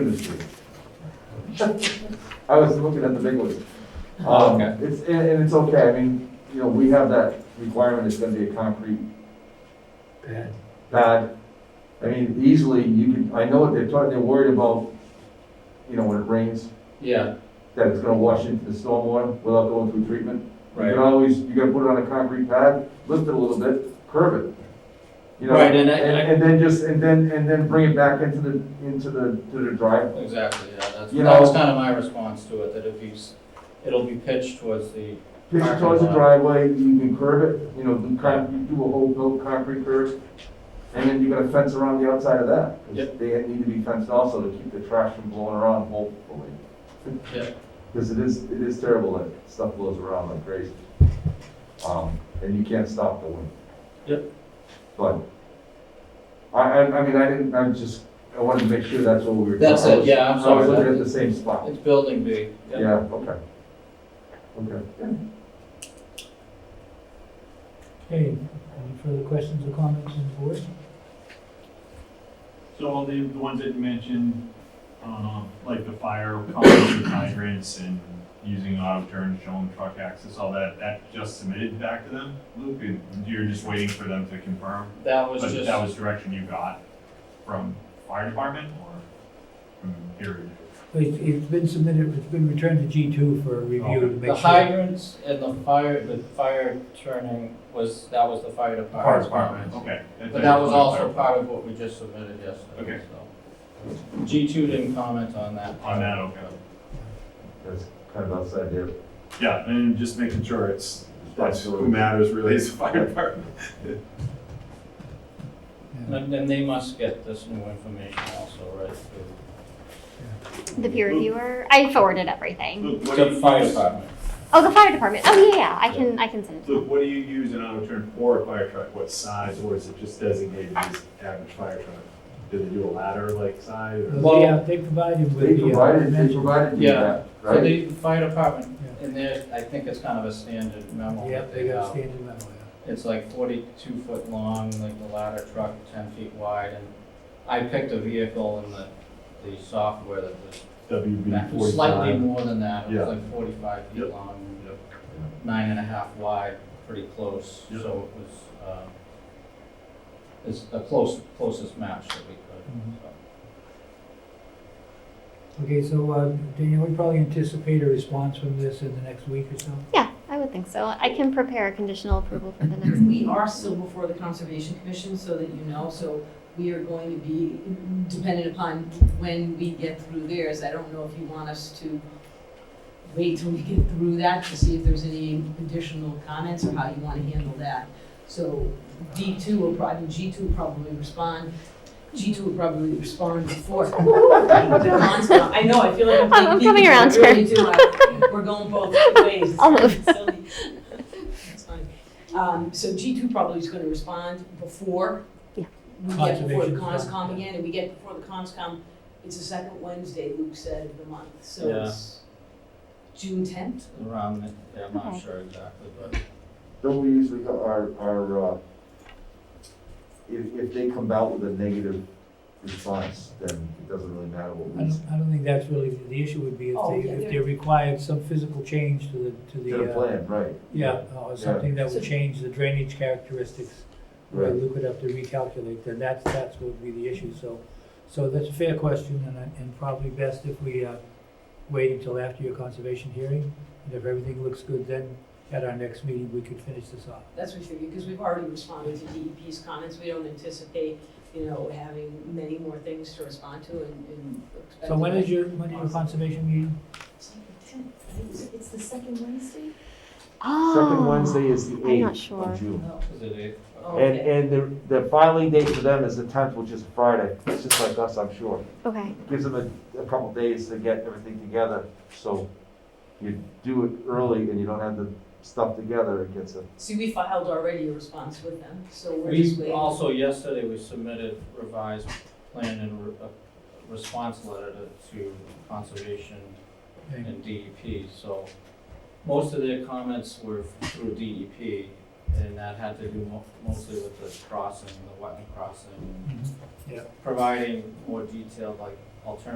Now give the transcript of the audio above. industry. I was looking at the big ones. Oh, Um, okay. It's, and, and it's okay, I mean, you know, we have that requirement, it's gonna be a concrete Bad. pad. I mean, easily, you can, I know what they're talking, they're worried about, you know, when it rains, Yeah, that it's gonna wash into the stormwater without going through treatment. You can right. always, you gotta put it on a concrete pad, lift it a little bit, curve it. You know, Right, and I- And, and then just, and then, and then bring it back into the, into the, to the drive. Exactly, yeah, that's, You that was know- kind of my response to it, that if you, s- it'll be pitched towards the, Pitch it towards the driveway, you can curve it, you know, do con, you do a whole built concrete curve. And then you got a fence around the outside of that. 'cause Yep. They need to be fenced also to keep the trash from blowing around hopefully. yeah, Because it is, it is terrible that stuff blows around like crazy. Um, and you can't stop the wind. Yep. But, I, I, I mean, I didn't, I'm just, I wanted to make sure that's what we were. That's it, I was- yeah, I'm I was sorry, looking that- at the same spot. it's building B, yeah. Yeah, okay. Okay. Okay, any further questions or comments on the board? So all the, the ones that you mentioned, um, like the fire company and hydrants and using auto turns, showing truck access, all that, that just submitted back to them, Luke? And You're just waiting for them to confirm? That was But that just, was direction you got from fire department or from here? It's, it's been submitted, it's been returned to G two for review to the make sure. hydrants and the fire, the fire turning was, that was the fire department. Fire department, okay. But that was also part of what we just submitted yesterday, Okay. so. G two didn't comment on that. On that, okay. That's kind of outside there. Yeah, and just making sure it's, that's who Absolutely. matters really is the fire department. And then they must get this new information also, right? The peer reviewer, I forwarded everything. Luke, what do To you the fire use- department. Oh, the fire department. Oh, yeah, yeah, I can, I can send it. Luke, what do you use an auto turn for a fire truck? What size, or is it just designated as average fire truck? Do they do a ladder like size? or- Well, yeah, they provided with They the. uh, provided, they dimensions. provided you Yeah. that, So right? the fire department, in there, I think it's kind of a standard memo Yeah, that they they got a have. standard level, yeah. It's like forty-two foot long, like the ladder truck, ten feet wide, and I picked a vehicle in the, the software that was WB slightly forty-five? more than that, it Yeah. was like forty-five feet Yep. long, Yep. nine and a half wide, pretty close, Yep. so it was, um, it's the close, closest match that we Mm-hmm. could, so. Okay, so, uh, Daniel, we probably anticipate a response from this in the next week or so? Yeah, I would think so. I can prepare a conditional approval for the next week. We are still before the Conservation Commission, so that you know, so we are going to be dependent upon when we get through theirs. I don't know if you want us to wait till we get through that to see if there's any additional comments or how you want to handle that. So D two will probably, G two will probably respond. G two will probably respond before. I know, I feel like I'm- I'm I'm taking- coming around, I really do. I- We're going both ways. I'll move. Silly. That's fine. Um, so G two probably is gonna respond before. Yeah. We get before the Conservation. conscom again, and we get before the conscom, it's the second Wednesday, Luke said, of the month, so Yeah. it's June tenth? Around, the- yeah, I'm not Okay. sure exactly, but Don't we usually, go- our, our, uh, if, if they come out with a negative response, then it doesn't really matter what I we don't, I don't think that's really, the- the issue would be if Oh, they, yeah, if they're- they required some physical change to the, to did a the, uh, plan, right? yeah, or something that would change the drainage characteristics. Where Right. Luke would have to recalculate, then that's, that's what would be the issue, so, so that's a fair question, and, I- and probably best if we, uh, wait until after your conservation hearing, and if everything looks good, then at our next meeting, we could finish this off. That's what we figured, because we've already responded to DEP's comments, we don't anticipate, you know, having many more things to respond to and, and. So when is your, when is your conservation meeting? It's like the 10th. I think it's- It's the second Wednesday? Oh. Second Wednesday is the I'm not eighth sure. of June. No. is it eight? uh, Oh. And, Okay. and the, the filing date for them is the tenth, which is Friday, it's just like us, I'm sure. Okay, Gives them a, a couple days to get everything together, so you do it early and you don't have the stuff together, it gets a See, we filed already a response with them, so we're just We waiting. also, yesterday, we submitted revised plan and re- a response letter to- to Conservation Okay. and DEP, so most of their comments were through DEP, and that had to do mo- mostly with the crossing, the wetland crossing, Mhm. Yeah. providing more detailed, like, alternative